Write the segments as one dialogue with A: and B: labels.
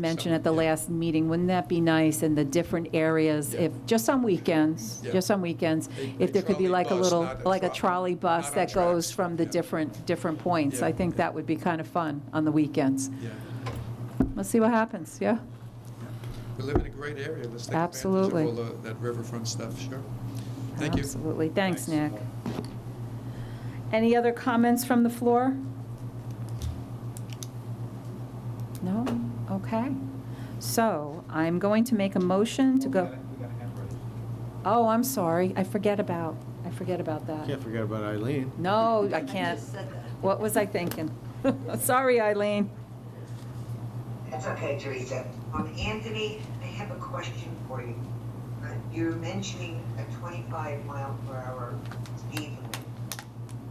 A: mentioned at the last meeting, wouldn't that be nice in the different areas, if, just on weekends,
B: Yeah.
A: just on weekends,
B: A- a
A: if there could be
B: trolley
A: like a
B: bus,
A: little,
B: not a
A: like a
B: tro-
A: trolley bus
B: not on
A: that goes
B: tracks.
A: from the
B: Yeah.
A: different, different points?
B: Yeah.
A: I think that would be kind of fun on the weekends.
B: Yeah,
A: Let's see what happens, yeah?
B: we live in a great area, let's take advantage of
A: Absolutely.
B: all the- that riverfront stuff, sure. Thank you.
A: Absolutely, thanks, Nick. Any other comments from the floor? No? Okay. So I'm going to make a motion to go. Oh, I'm sorry, I forget about, I forget about that.
C: Can't forget about Eileen.
A: No, I can't. What was I thinking? Sorry, Eileen.
D: That's okay, Teresa. Um, Anthony, I have a question for you. Uh, You're mentioning a twenty-five mile per hour speed limit.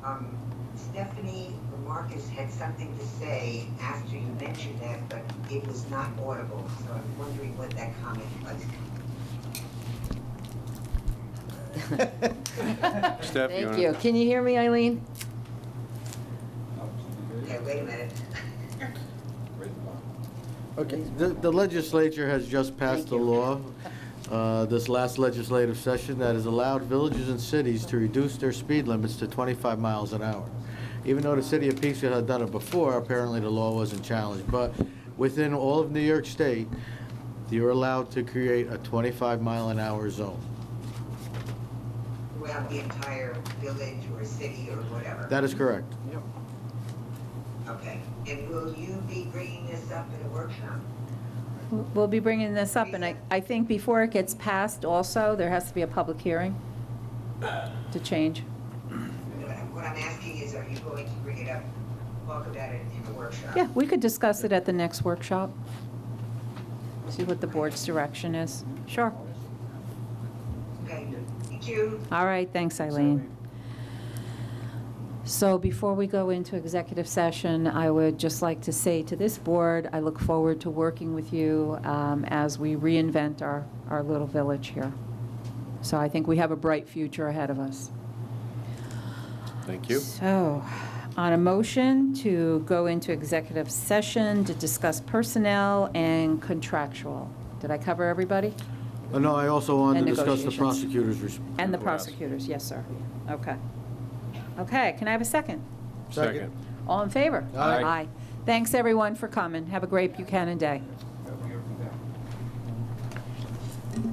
D: Um, Stephanie Lamarcus had something to say after you mentioned that, but it was not audible, so I'm wondering what that comment was.
E: Steph, you
F: Thank
E: wanna-
F: you. Can you hear me, Eileen?
D: Okay, wait a minute.
C: Okay, the the legislature has just passed a law, uh, this last legislative session, that has allowed villages and cities to reduce their speed limits to 25 miles an hour. Even though the city of Peekskill had done it before, apparently the law wasn't challenged. But within all of New York State, you're allowed to create a 25 mile an hour zone.
D: Throughout the entire village or city or whatever.
C: That is correct.
D: Okay, and will you be bringing this up in a workshop?
A: We'll be bringing this up, and I, I think before it gets passed also, there has to be a public hearing to change.
D: What I'm- What I'm asking is, are you going to bring it up, talk about it in the workshop?
A: Yeah, we could discuss it at the next workshop. See what the board's direction is. Sure.
D: Okay, thank you.
A: All right, thanks, Eileen. So before we go into executive session, I would just like to say to this board, I look forward to working with you um, as we reinvent our, our little village here. So I think we have a bright future ahead of us.
E: Thank you.
A: So, on a motion to go into executive session to discuss personnel and contractual. Did I cover everybody?
C: Uh, No, I also
A: And
C: wanted to discuss the
A: negotiations.
C: prosecutor's. res-
A: And the
C: request.
A: prosecutors, yes, sir. Okay. Okay, can I have a second?
C: Second.
A: All in favor?
C: Aye.
A: Thanks, everyone, for coming. Have a great Buchanan day.